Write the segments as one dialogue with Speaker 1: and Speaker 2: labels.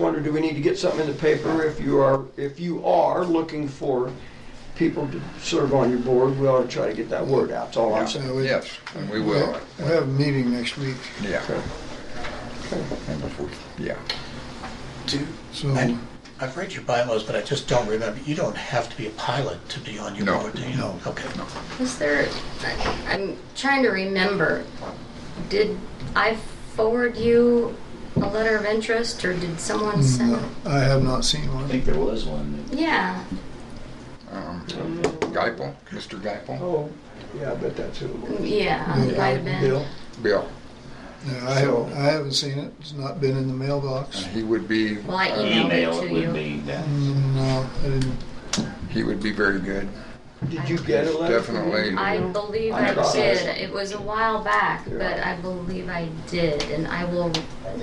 Speaker 1: wonder, do we need to get something in the paper if you are, if you are looking for people to serve on your board? We ought to try to get that word out, that's all I'm saying.
Speaker 2: Yeah,
Speaker 3: we-
Speaker 2: Yes, and we will,
Speaker 3: We'll have a meeting next week,
Speaker 2: yeah.
Speaker 1: Okay.
Speaker 2: And before, yeah.
Speaker 4: Do,
Speaker 3: so.
Speaker 4: I, I've read your bylaws, but I just don't remember. You don't have to be a pilot to be on your
Speaker 2: No.
Speaker 4: board, do you? No. Okay.
Speaker 5: Was there, I- I'm trying to remember, did I forward you a letter of interest or did
Speaker 1: Mm,
Speaker 5: someone send?
Speaker 3: No, I have not seen
Speaker 6: I
Speaker 3: one.
Speaker 6: think there was one.
Speaker 5: Yeah,
Speaker 2: Um, Geipel, Mr. Geipel,
Speaker 1: Oh, yeah, I bet that's who it was.
Speaker 5: yeah, it might have been.
Speaker 1: Bill?
Speaker 2: Bill,
Speaker 3: Yeah, I haven't, I haven't seen it. It's not been in the mailbox.
Speaker 2: and he would be, uh,
Speaker 5: Well, I
Speaker 6: Or
Speaker 5: emailed
Speaker 6: Email
Speaker 5: it
Speaker 6: it
Speaker 5: to
Speaker 6: would
Speaker 5: you.
Speaker 6: be then.
Speaker 1: Mm-hmm.
Speaker 3: No, uh, I didn't.
Speaker 2: he would be very good.
Speaker 1: Did you get a letter? from him?
Speaker 2: Definitely.
Speaker 5: I believe
Speaker 1: I
Speaker 5: I
Speaker 1: got
Speaker 5: did.
Speaker 1: it.
Speaker 5: It was a while back, but I believe I did, and I will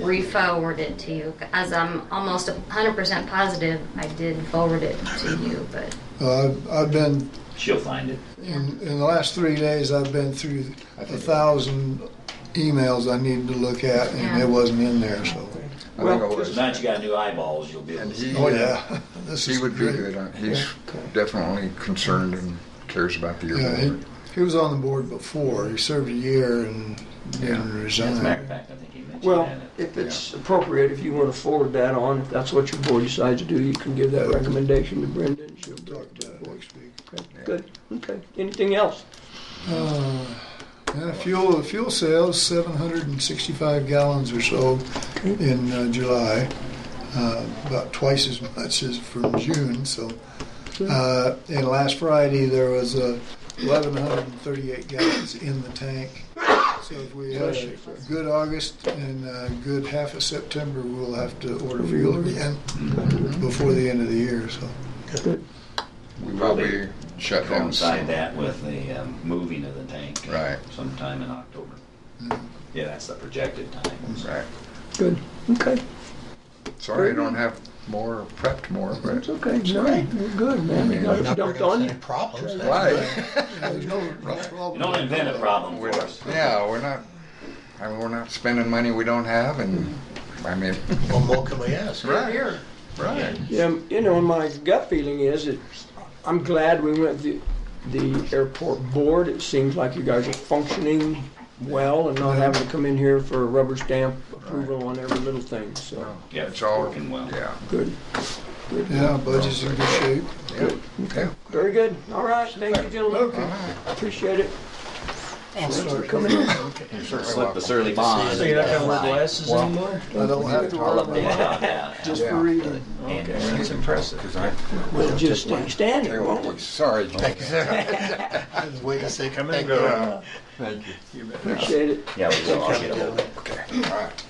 Speaker 5: re-forward it to you. As I'm almost 100% positive, I did forward it to you, but,
Speaker 3: Uh, I've, I've been,
Speaker 6: She'll find it.
Speaker 5: yeah.
Speaker 3: in, in the last three days, I've been through
Speaker 2: I
Speaker 3: a
Speaker 2: think-
Speaker 3: thousand emails I needed to look at and
Speaker 5: Yeah.
Speaker 3: it wasn't in there, so.
Speaker 2: I think I
Speaker 1: Well,
Speaker 2: was.
Speaker 6: Now that you got new eyeballs, you'll be able
Speaker 2: And
Speaker 6: to.
Speaker 2: he,
Speaker 3: Oh,
Speaker 2: uh,
Speaker 3: yeah. This
Speaker 2: he
Speaker 3: is
Speaker 2: would be
Speaker 3: great.
Speaker 2: good. Uh, He's definitely concerned and cares about the
Speaker 3: Yeah,
Speaker 2: yearbook.
Speaker 3: he, he was on the board before. He served a year and
Speaker 2: Yeah.
Speaker 3: then
Speaker 6: As a matter of
Speaker 3: resigned.
Speaker 6: fact, I think he mentioned
Speaker 1: Well,
Speaker 6: that.
Speaker 1: if it's appropriate, if you want to forward that on, if that's what your board decides to do, you can give that recommendation to Brenda and she'll
Speaker 3: Talk
Speaker 1: bring it to
Speaker 3: about
Speaker 1: the
Speaker 3: it
Speaker 1: board.
Speaker 3: next week.
Speaker 1: Okay, Good, okay. Anything else?
Speaker 3: Uh, yeah, fuel, fuel sales, 765 gallons or so in uh, July, uh, about twice as much as from June. So, uh, and last Friday there was uh, 1,138 gallons in the tank. So if we have a good August and a good half of September, we'll have to order fuel again before the end of the year. So.
Speaker 2: We will be shut down
Speaker 6: Coincide
Speaker 2: soon.
Speaker 6: that with the um, moving of the tank. uh,
Speaker 2: Right.
Speaker 6: Sometime in October.
Speaker 1: Mm-hmm.
Speaker 6: Yeah, that's the projected time. so.
Speaker 2: Right.
Speaker 1: Good, okay.
Speaker 2: Sorry, I don't have more, prepped more, but
Speaker 1: It's okay, no, we're good, man. You got it dumped on you.
Speaker 4: Any problems? That's
Speaker 2: why?
Speaker 3: There's no, no problem.
Speaker 6: You don't invent a problem for
Speaker 2: We're not-
Speaker 6: us.
Speaker 2: Yeah, we're not, I mean, we're not spending money we don't have and, I mean,
Speaker 4: good. What more can we ask?
Speaker 2: right, right.
Speaker 1: Yeah, you know, my gut feeling is that I'm glad we went the, the airport board. It seems like you guys are functioning well and not having to come in here for a rubber stamp approval on every little thing, so,
Speaker 6: Yeah,
Speaker 2: It's all,
Speaker 6: working well.
Speaker 2: yeah,
Speaker 1: good.
Speaker 3: Yeah, budget's in good shape.
Speaker 2: yeah, okay.
Speaker 1: Very good, all right, thank you, gentlemen, appreciate it. Thanks for coming in.
Speaker 2: Slip the
Speaker 6: Surly bond.
Speaker 4: you're not gonna wear
Speaker 6: glasses anymore?
Speaker 3: I don't have to worry about it.
Speaker 1: Just for reading,
Speaker 2: That's impressive. Cause I,
Speaker 1: we'll just stay standing,
Speaker 2: Hey,
Speaker 1: won't
Speaker 2: well,
Speaker 1: we?
Speaker 2: sorry. Thank
Speaker 4: I was waiting to say come in.
Speaker 2: you. uh, Thank you.
Speaker 1: Appreciate it.
Speaker 6: Yeah, we will. I'll get ahold of it.
Speaker 2: Okay, all right.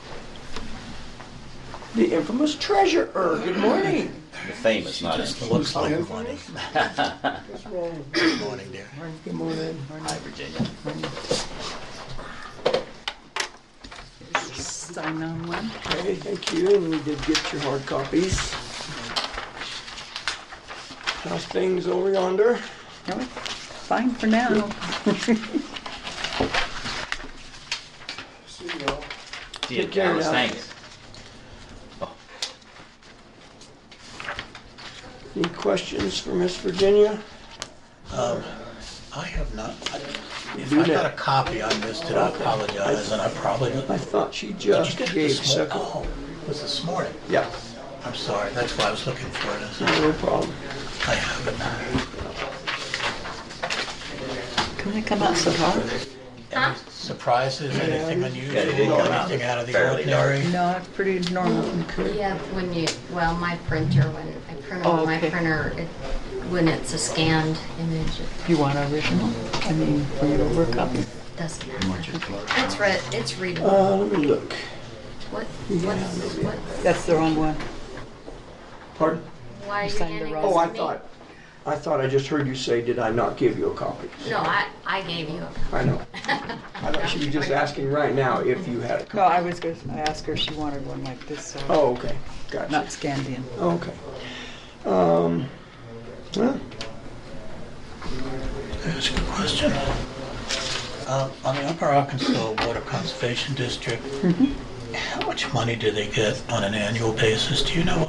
Speaker 1: The infamous treasurer, good morning.
Speaker 6: The famous, not
Speaker 4: Just
Speaker 6: in
Speaker 4: looks like good morning.
Speaker 1: What's wrong?
Speaker 4: Good morning, dear.
Speaker 1: Good morning.
Speaker 6: High Virginia.
Speaker 7: Sign on one.
Speaker 1: Okay, thank you, and we did get your hard copies. How's things over yonder?
Speaker 7: Are we? Fine for now.
Speaker 6: Dear
Speaker 1: Take care
Speaker 6: Dallas,
Speaker 1: now.
Speaker 6: thanks.
Speaker 1: Any questions for Miss Virginia?
Speaker 4: I have not, if
Speaker 1: Do
Speaker 4: I got
Speaker 1: that.
Speaker 4: a copy on this, did I apologize? And I probably didn't.
Speaker 1: I thought she just
Speaker 4: Did you get
Speaker 1: gave
Speaker 4: this morning?
Speaker 1: second.
Speaker 4: Oh, it was this morning.
Speaker 1: Yeah,
Speaker 4: I'm sorry, that's why I was looking for it. I said,
Speaker 1: no problem.
Speaker 4: I haven't.
Speaker 7: Can I come out so far?
Speaker 5: Huh?
Speaker 4: Surprises, anything unusual,
Speaker 6: Yeah, they didn't come out
Speaker 4: anything out of the
Speaker 6: fairly dark.
Speaker 4: ordinary?
Speaker 7: No, it's pretty normal.
Speaker 5: Yeah, when you, well, my printer, when I print on my
Speaker 7: Okay.
Speaker 5: printer, it, when it's a scanned image, it
Speaker 7: You want original? I mean, for your work copy?
Speaker 5: doesn't matter. It's read, it's readable.
Speaker 1: Uh, let me look.
Speaker 5: What, what's, what,
Speaker 7: That's the wrong one.
Speaker 1: Pardon?
Speaker 5: why are you
Speaker 7: signed the
Speaker 5: handing this to me?
Speaker 7: wrong-
Speaker 1: Oh, I thought, I thought I just heard you say, did I not give you a copy?
Speaker 5: No, I, I gave you a
Speaker 1: I know. I thought she was just asking right now if you had a
Speaker 7: No,
Speaker 1: copy.
Speaker 7: I was going to ask her if she wanted one like this, so
Speaker 1: Oh, okay, gotcha.
Speaker 7: not scanned in.
Speaker 1: Okay. Um, well,
Speaker 4: That's a good question. Uh, Um, On the Upper Arkansas Water Conservation District, How much money do they get on an annual basis? Do you know